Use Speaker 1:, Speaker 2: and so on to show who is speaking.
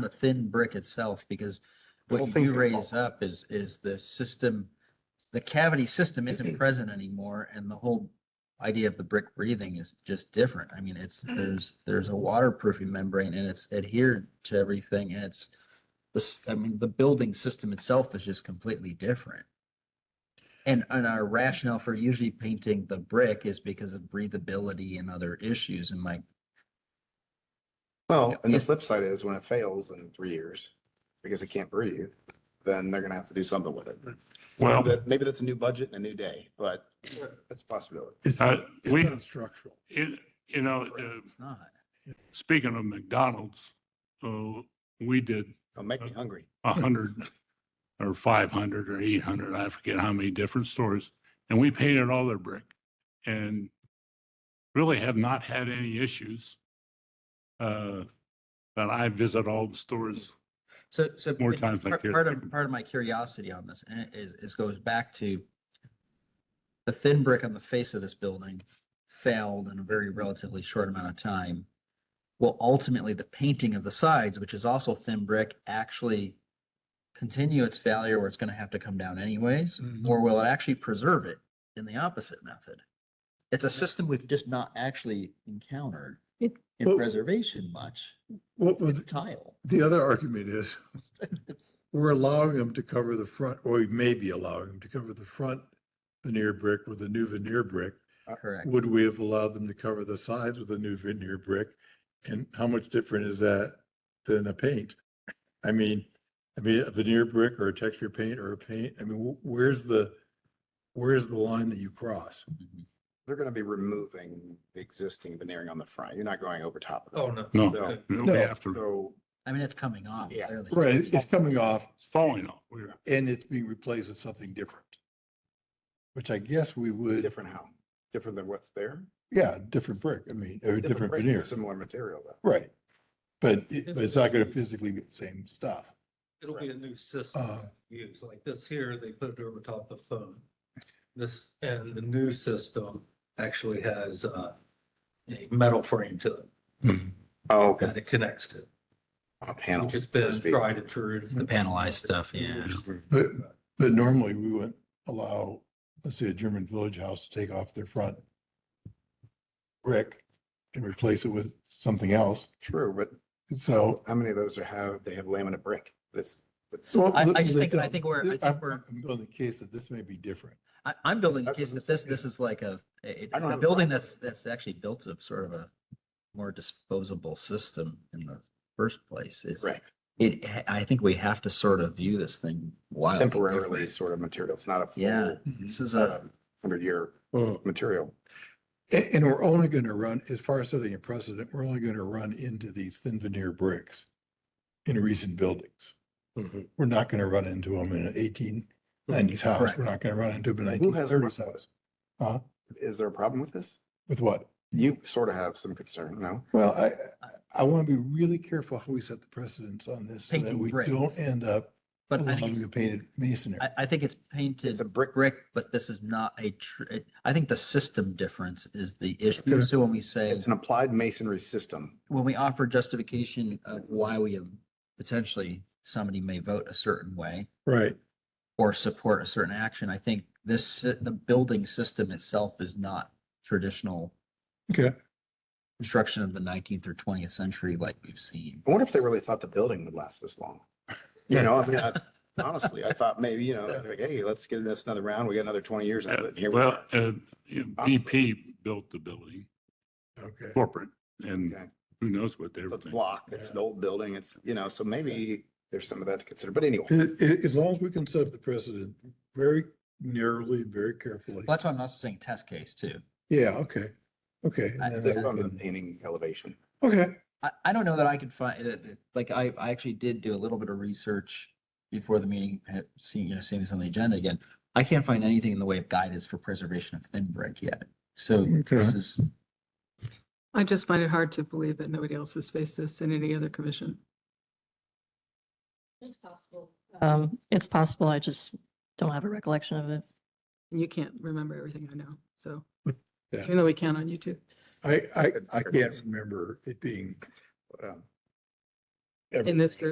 Speaker 1: the thin brick itself, because
Speaker 2: whole
Speaker 1: what
Speaker 2: thing's
Speaker 1: you
Speaker 2: gonna
Speaker 1: raise up is, is the system, the cavity system isn't present anymore, and the whole idea of the brick breathing is just different. I mean, it's,
Speaker 2: Mm.
Speaker 1: there's, there's a waterproofing membrane, and it's adhered to everything, and it's, this, I mean, the building system itself is just completely different. And, and our rationale for usually painting the brick is because of breathability and other issues, and my
Speaker 2: Well, and the
Speaker 1: Is-
Speaker 2: flip side is when it fails in three years, because it can't breathe, then they're gonna have to do something with it.
Speaker 3: Well-
Speaker 2: That- Maybe that's a new budget and a new day, but that's a possibility.
Speaker 4: It's,
Speaker 3: Uh,
Speaker 4: it's
Speaker 3: we-
Speaker 4: not structural.
Speaker 3: It, you know, uh,
Speaker 1: it's not.
Speaker 3: speaking of McDonald's, so we did
Speaker 2: Don't make me hungry.
Speaker 3: a hundred or five hundred or eight hundred, I forget how many different stores, and we painted all their brick and really have not had any issues. Uh, but I visit all the stores.
Speaker 1: So, so.
Speaker 3: More
Speaker 1: it-
Speaker 3: times I
Speaker 1: part-
Speaker 3: care.
Speaker 1: Part of, part of my curiosity on this and it is, is goes back to the thin brick on the face of this building failed in a very relatively short amount of time. Well, ultimately, the painting of the sides, which is also thin brick, actually continue its failure where it's going to have to come down anyways? Or will it actually preserve it in the opposite method? It's a system we've just not actually encountered
Speaker 5: It-
Speaker 1: in
Speaker 4: Well-
Speaker 1: preservation much.
Speaker 4: What
Speaker 1: It's
Speaker 4: was,
Speaker 1: tile.
Speaker 4: the other argument is,
Speaker 1: It's-
Speaker 4: we're allowing them to cover the front, or we may be allowing them to cover the front veneer brick with a new veneer brick.
Speaker 1: Correct.
Speaker 4: Would we have allowed them to cover the sides with a new veneer brick? And how much different is that than a paint? I mean, I mean, a veneer brick or a texture paint or a paint, I mean, wh- where's the, where's the line that you cross?
Speaker 1: Mhm.
Speaker 2: They're gonna be removing the existing veneering on the front. You're not going over top
Speaker 6: Oh,
Speaker 2: of
Speaker 6: no.
Speaker 3: No,
Speaker 2: No.
Speaker 3: we have
Speaker 2: it.
Speaker 3: to,
Speaker 2: So
Speaker 1: I mean, it's coming off.
Speaker 2: Yeah.
Speaker 1: clearly.
Speaker 4: Right, it's coming off
Speaker 3: it's falling off. We're,
Speaker 4: and it's being replaced with something different. Which I guess we would,
Speaker 2: different how? Different than what's there?
Speaker 4: yeah, different brick, I mean, or different
Speaker 2: brick,
Speaker 4: veneer,
Speaker 2: Similar material though.
Speaker 4: right? But it, but it's not gonna physically be the same stuff.
Speaker 6: It'll be a new system
Speaker 4: Uh,
Speaker 6: used, like this here, they put it over top of the phone. This, and the new system actually has uh, a metal frame to it
Speaker 2: Oh, okay.
Speaker 6: that it connects to,
Speaker 2: A panel.
Speaker 6: which has
Speaker 2: so to
Speaker 6: been
Speaker 2: speak.
Speaker 6: tried and true.
Speaker 1: The panelized stuff, yeah.
Speaker 4: But, but normally we wouldn't allow, let's say a German village house to take off their front brick and replace it with something else.
Speaker 2: True, but
Speaker 4: So.
Speaker 2: how many of those are have, they have laminate brick? This, that's
Speaker 1: I- I just think- I think we're- I think
Speaker 4: I'm-
Speaker 1: we're-
Speaker 4: I'm building the case that this may be different.
Speaker 1: I, I'm building a
Speaker 2: That's what
Speaker 1: case
Speaker 2: I'm
Speaker 1: that this,
Speaker 2: saying,
Speaker 1: this is like a, it-
Speaker 2: I don't
Speaker 1: it's a
Speaker 2: have a
Speaker 1: building
Speaker 2: problem.
Speaker 1: that's, that's actually built of sort of a more disposable system in the first place. It's,
Speaker 2: right.
Speaker 1: it, I think we have to sort of view this thing wildly.
Speaker 2: Temporarily
Speaker 1: different.
Speaker 2: sort of material. It's not a
Speaker 1: Yeah,
Speaker 2: full um,
Speaker 1: this is a,
Speaker 2: hundred year material.
Speaker 4: And, and we're only going to run, as far as setting a precedent, we're only going to run into these thin veneer bricks in recent buildings.
Speaker 1: Mm-hmm.
Speaker 4: We're not going to run into them in an eighteen nineties house.
Speaker 1: Correct.
Speaker 4: We're not going to run into them in
Speaker 2: Who
Speaker 4: nineteen
Speaker 2: has a problem
Speaker 4: thirties house. Huh?
Speaker 2: Is there a problem with this?
Speaker 4: With what?
Speaker 2: You sort of have some concern, no?
Speaker 4: Well, I, I want to be really careful how we set the precedents on this so that
Speaker 1: Painting
Speaker 4: we
Speaker 1: brick.
Speaker 4: don't end up
Speaker 1: but I think,
Speaker 4: allowing
Speaker 1: it's-
Speaker 4: the painted masonry.
Speaker 1: I, I think it's painted
Speaker 2: It's a brick.
Speaker 1: brick, but this is not a tr- it- I think the system difference is the issue.
Speaker 4: Okay.
Speaker 1: So when we say.
Speaker 2: It's an applied masonry system.
Speaker 1: when we offer justification of why we have potentially somebody may vote a certain way
Speaker 4: Right.
Speaker 1: or support a certain action, I think this, the building system itself is not traditional
Speaker 4: Okay.
Speaker 1: construction of the nineteenth or twentieth century like we've seen.
Speaker 2: I wonder if they really thought the building would last this long. You know, I mean, I- honestly, I thought maybe, you know, like, hey, let's get this another round. We got another twenty years out of it.
Speaker 3: uh,
Speaker 2: and Here we
Speaker 3: well,
Speaker 2: are.
Speaker 3: uh, you know, BP built the building,
Speaker 4: Okay.
Speaker 3: corporate, and
Speaker 2: Okay.
Speaker 3: who knows what they
Speaker 2: So
Speaker 3: were
Speaker 2: It's
Speaker 3: thinking.
Speaker 2: block. It's an old building. It's, you know, so maybe there's some of that to consider, but anyway.
Speaker 4: As, as long as we can set up the precedent very narrowly, and very carefully.
Speaker 1: Well, That's why I'm also saying test case too.
Speaker 4: Yeah, okay, okay.
Speaker 1: I-
Speaker 4: and
Speaker 2: This
Speaker 4: then
Speaker 2: one,
Speaker 4: we
Speaker 2: the
Speaker 4: can-
Speaker 2: painting elevation.
Speaker 4: Okay,
Speaker 1: I, I don't know that I could find, uh, uh, like, I, I actually did do a little bit of research before the meeting, had seen, you know, seeing this on the agenda again. I can't find anything in the way of guidance for preservation of thin brick yet. So this
Speaker 4: Okay.
Speaker 1: is,
Speaker 5: I just find it hard to believe that nobody else has faced this in any other commission.
Speaker 7: It's possible.
Speaker 8: Um, it's possible. I just don't have a recollection of it.
Speaker 5: And you can't remember everything I know, so.
Speaker 4: Yeah.
Speaker 5: Even though we count on you two.
Speaker 4: I, I,
Speaker 2: Good
Speaker 4: I can't
Speaker 2: service.
Speaker 4: remember it being
Speaker 2: But, um,
Speaker 4: ever.
Speaker 5: In this group.